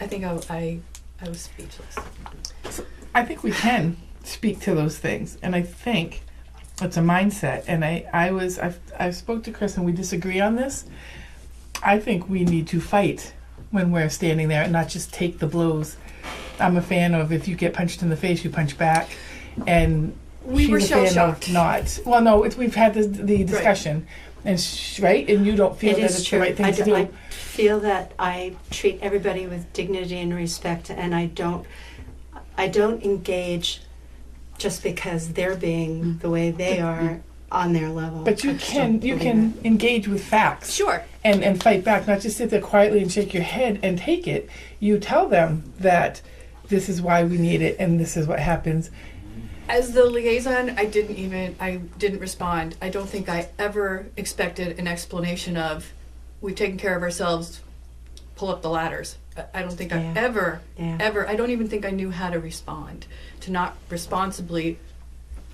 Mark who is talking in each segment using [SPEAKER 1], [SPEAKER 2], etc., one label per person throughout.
[SPEAKER 1] I think I, I, I was speechless.
[SPEAKER 2] I think we can speak to those things, and I think it's a mindset. And I, I was, I've, I spoke to Chris, and we disagree on this. I think we need to fight when we're standing there, and not just take the blows. I'm a fan of if you get punched in the face, you punch back, and
[SPEAKER 1] We
[SPEAKER 2] she's
[SPEAKER 1] were
[SPEAKER 2] a fan of
[SPEAKER 1] shell-shocked.
[SPEAKER 2] Not well, no. It's, we've had this, the discussion, and sh- right, and you don't feel
[SPEAKER 3] It
[SPEAKER 2] that
[SPEAKER 3] is
[SPEAKER 2] it's
[SPEAKER 3] true.
[SPEAKER 2] the right thing
[SPEAKER 3] I
[SPEAKER 2] to
[SPEAKER 3] d-
[SPEAKER 2] do.
[SPEAKER 3] I feel that I treat everybody with dignity and respect, and I don't, I don't engage just because they're being the way they are on their level.
[SPEAKER 2] but
[SPEAKER 3] I
[SPEAKER 2] you
[SPEAKER 3] just don't
[SPEAKER 2] can, you
[SPEAKER 3] believe
[SPEAKER 2] can
[SPEAKER 3] it.
[SPEAKER 2] engage with facts.
[SPEAKER 1] Sure.
[SPEAKER 2] and, and fight back, not just sit there quietly and shake your head and take it. You tell them that this is why we need it and this is what happens.
[SPEAKER 1] As the liaison, I didn't even, I didn't respond. I don't think I ever expected an explanation of, we've taken care of ourselves, pull up the ladders. I- I don't think I
[SPEAKER 3] Yeah.
[SPEAKER 1] ever,
[SPEAKER 3] Yeah.
[SPEAKER 1] ever, I don't even think I knew how to respond, to not responsibly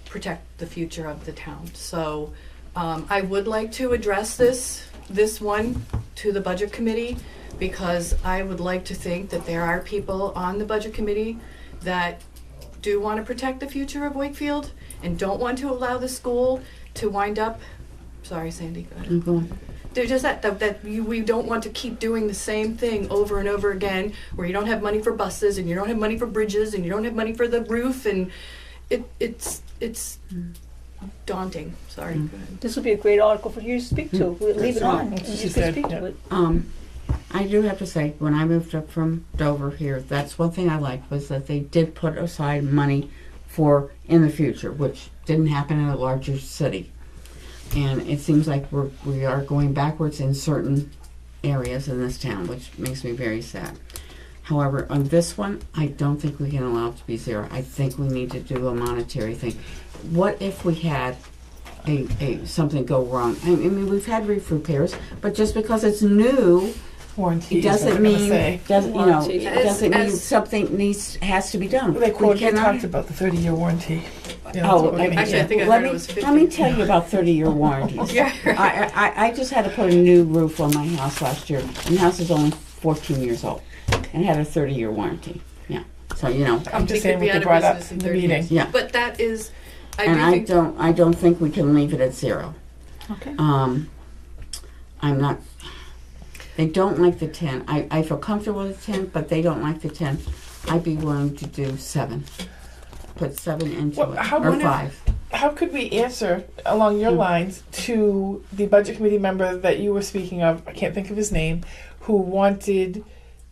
[SPEAKER 1] protect the future of the town. So um, I would like to address this, this one, to the Budget Committee, because I would like to think that there are people on the Budget Committee that do want to protect the future of Wakefield and don't want to allow the school to wind up, sorry Sandy, go ahead.
[SPEAKER 3] I'm going.
[SPEAKER 1] They're just that, that, that you, we don't want to keep doing the same thing over and over again where you don't have money for buses and you don't have money for bridges and you don't have money for the roof and it, it's, it's daunting, sorry.
[SPEAKER 2] Mm.
[SPEAKER 1] Go ahead.
[SPEAKER 4] This would be a great article for you to speak to. We'll leave it
[SPEAKER 5] That's
[SPEAKER 4] on.
[SPEAKER 5] right.
[SPEAKER 4] and
[SPEAKER 2] She
[SPEAKER 4] You
[SPEAKER 2] said,
[SPEAKER 4] can speak
[SPEAKER 2] yeah.
[SPEAKER 4] to it.
[SPEAKER 5] Um, I do have to say, when I moved up from Dover here, that's one thing I liked was that they did put aside money for in the future, which didn't happen in a larger city. And it seems like we're, we are going backwards in certain areas in this town, which makes me very sad. However, on this one, I don't think we can allow it to be zero. I think we need to do a monetary thing. What if we had a, a something go wrong? I mean, we've had roof repairs, but just because it's new,
[SPEAKER 2] Warranty
[SPEAKER 5] it
[SPEAKER 2] is what
[SPEAKER 5] doesn't
[SPEAKER 2] I'm gonna
[SPEAKER 5] mean
[SPEAKER 2] say.
[SPEAKER 5] doesn't you know
[SPEAKER 4] Warranty.
[SPEAKER 5] it doesn't mean
[SPEAKER 1] As-
[SPEAKER 5] something needs has to be done.
[SPEAKER 2] They quoted,
[SPEAKER 5] we
[SPEAKER 2] they
[SPEAKER 5] cannot.
[SPEAKER 2] talked about the 30 year warranty. Yeah, that's what
[SPEAKER 5] Oh,
[SPEAKER 2] we're
[SPEAKER 5] I-
[SPEAKER 1] Actually,
[SPEAKER 2] gonna
[SPEAKER 1] I
[SPEAKER 2] get.
[SPEAKER 1] think I
[SPEAKER 5] let
[SPEAKER 1] heard
[SPEAKER 5] me,
[SPEAKER 1] it was
[SPEAKER 5] Let me
[SPEAKER 1] 50.
[SPEAKER 5] tell you about 30 year warranties.
[SPEAKER 1] Yeah.
[SPEAKER 5] I, I, I just had to put a new roof on my house last year. And the house is only 14 years old and had a 30 year warranty. Yeah. So, you know.
[SPEAKER 2] I'm
[SPEAKER 1] They
[SPEAKER 2] just
[SPEAKER 1] could
[SPEAKER 2] saying
[SPEAKER 1] be
[SPEAKER 2] what
[SPEAKER 1] out
[SPEAKER 2] they
[SPEAKER 1] of
[SPEAKER 2] brought up
[SPEAKER 1] business
[SPEAKER 2] in
[SPEAKER 1] in
[SPEAKER 2] the
[SPEAKER 1] 30
[SPEAKER 2] meeting.
[SPEAKER 1] years.
[SPEAKER 5] Yeah.
[SPEAKER 1] But that is, I
[SPEAKER 5] and
[SPEAKER 1] do
[SPEAKER 5] I
[SPEAKER 1] think
[SPEAKER 5] don't I don't think we can leave it at zero.
[SPEAKER 4] Okay.
[SPEAKER 5] Um, I'm not. They don't like the ten. I, I feel comfortable with the ten, but they don't like the ten. I'd be willing to do seven. Put seven into
[SPEAKER 2] Well,
[SPEAKER 5] it
[SPEAKER 2] how
[SPEAKER 5] or
[SPEAKER 2] wonderful.
[SPEAKER 5] five.
[SPEAKER 2] How could we answer along
[SPEAKER 5] Mm.
[SPEAKER 2] your lines to the budget committee member that you were speaking of? I can't think of his name, who wanted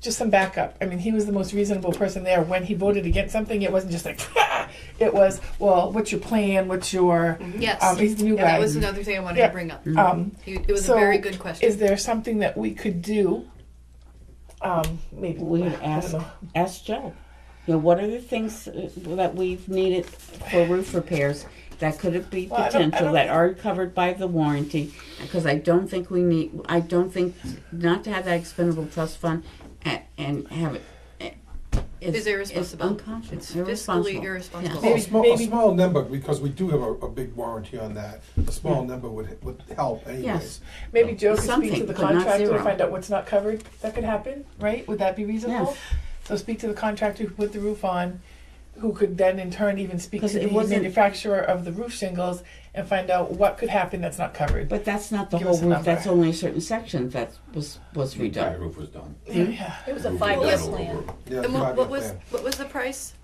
[SPEAKER 2] just some backup. I mean, he was the most reasonable person there. When he voted against something, it wasn't just like, it was, well, what's your plan? What's your.
[SPEAKER 1] Yes.
[SPEAKER 2] Um, he's the new
[SPEAKER 1] Yeah,
[SPEAKER 2] guy.
[SPEAKER 1] That was another thing I wanted
[SPEAKER 2] Yeah.
[SPEAKER 1] to bring up.
[SPEAKER 2] Um,
[SPEAKER 1] You- It was a
[SPEAKER 2] So,
[SPEAKER 1] very good question.
[SPEAKER 2] Is there something that we could do? Um, maybe
[SPEAKER 5] We
[SPEAKER 2] I
[SPEAKER 5] would
[SPEAKER 2] don't
[SPEAKER 5] ask
[SPEAKER 2] know.
[SPEAKER 5] ask Joe. You know, what are the things uh, that we've needed for roof repairs that could it be
[SPEAKER 2] Well, I don't- I
[SPEAKER 5] potential
[SPEAKER 2] don't-
[SPEAKER 5] that are covered by the warranty? Because I don't think we need. I don't think not to have that expendable trust fund and, and have it. eh,
[SPEAKER 1] Is irresponsible.
[SPEAKER 5] It's unconscious.
[SPEAKER 1] It's fiscally irresponsible.
[SPEAKER 5] Yeah.
[SPEAKER 2] Maybe-
[SPEAKER 6] A small, a
[SPEAKER 2] maybe-
[SPEAKER 6] small number, because we do have a, a big warranty on that, a small number would, would help anyways.
[SPEAKER 5] Yes.
[SPEAKER 2] Maybe Joe could speak to
[SPEAKER 5] Something,
[SPEAKER 2] the
[SPEAKER 5] but not
[SPEAKER 2] contractor and
[SPEAKER 5] zero.
[SPEAKER 2] find out what's not covered. That could happen, right? Would that be reasonable? So speak to the contractor who put the roof on, who could then in turn even speak to
[SPEAKER 5] 'Cause it
[SPEAKER 2] the
[SPEAKER 5] wasn't-
[SPEAKER 2] manufacturer of the roof shingles and find out what could happen that's not covered.
[SPEAKER 5] But that's not the
[SPEAKER 2] Give
[SPEAKER 5] whole
[SPEAKER 2] us a
[SPEAKER 5] roof. That's
[SPEAKER 2] number.
[SPEAKER 5] only a certain section that was was
[SPEAKER 7] The entire
[SPEAKER 5] redone.
[SPEAKER 7] roof was done.
[SPEAKER 2] Yeah.
[SPEAKER 4] It was a
[SPEAKER 7] Roof
[SPEAKER 4] five-year
[SPEAKER 7] was done
[SPEAKER 4] plan.
[SPEAKER 7] over-
[SPEAKER 6] Yeah,
[SPEAKER 1] And what,
[SPEAKER 6] five-year
[SPEAKER 1] what was,
[SPEAKER 6] plan.
[SPEAKER 1] what was the price?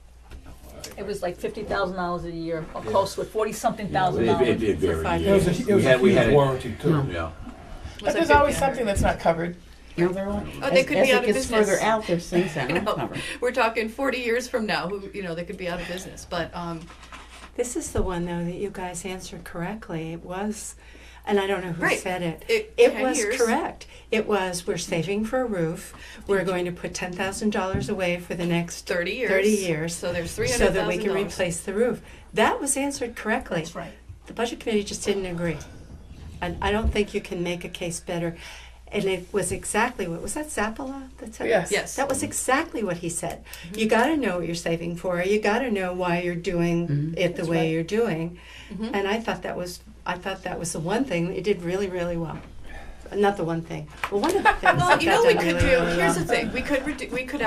[SPEAKER 4] It was like fifty thousand dollars a year, or close to it, forty-something thousand
[SPEAKER 7] It, it
[SPEAKER 4] dollars.
[SPEAKER 7] did vary.
[SPEAKER 1] five
[SPEAKER 6] It
[SPEAKER 7] yeah.
[SPEAKER 6] was a, it
[SPEAKER 7] We
[SPEAKER 6] was a
[SPEAKER 7] had, we had
[SPEAKER 6] huge
[SPEAKER 7] it-
[SPEAKER 6] warranty too.
[SPEAKER 7] Yeah.
[SPEAKER 1] Was
[SPEAKER 2] But
[SPEAKER 1] it
[SPEAKER 2] there's always
[SPEAKER 1] 50?
[SPEAKER 2] something that's not covered.
[SPEAKER 5] You know, they're all-
[SPEAKER 1] Oh, they
[SPEAKER 5] as-
[SPEAKER 1] could
[SPEAKER 5] as
[SPEAKER 1] be
[SPEAKER 5] it
[SPEAKER 1] out of
[SPEAKER 5] gets
[SPEAKER 1] business.
[SPEAKER 5] Further out, there's things that
[SPEAKER 1] You
[SPEAKER 5] aren't
[SPEAKER 1] know,
[SPEAKER 5] covered.
[SPEAKER 1] We're talking 40 years from now, who, you know, they could be out of business, but, um,
[SPEAKER 3] This is the one though that you guys answered correctly. It was, and I don't know who
[SPEAKER 1] Right.
[SPEAKER 3] said it.
[SPEAKER 1] It- 10
[SPEAKER 3] was
[SPEAKER 1] years.
[SPEAKER 3] correct. It was. We're saving for a roof. We're going to put ten thousand dollars away for the next
[SPEAKER 1] 30 years.
[SPEAKER 3] 30 years,
[SPEAKER 1] So there's
[SPEAKER 3] so that we can
[SPEAKER 1] $300,000.
[SPEAKER 3] replace the roof. That was answered correctly.
[SPEAKER 4] That's right.
[SPEAKER 3] The budget committee just didn't agree. And I don't think you can make a case better. And it was exactly what was that Zappala that said
[SPEAKER 2] Yes.
[SPEAKER 1] Yes. Mm-hmm.
[SPEAKER 3] That was exactly what he said. You got to know what you're saving for. You got to know why you're doing it the way
[SPEAKER 4] right.
[SPEAKER 3] you're doing.
[SPEAKER 1] Mhm.
[SPEAKER 3] And I thought that was I thought that was the one thing that it did really really well. Not the one thing. Well, one of the things.
[SPEAKER 1] Well,
[SPEAKER 3] it
[SPEAKER 1] you
[SPEAKER 3] got
[SPEAKER 1] know, we
[SPEAKER 3] done
[SPEAKER 1] could do,
[SPEAKER 3] really, really
[SPEAKER 1] here's the
[SPEAKER 3] well.
[SPEAKER 1] thing, we could, redu- we could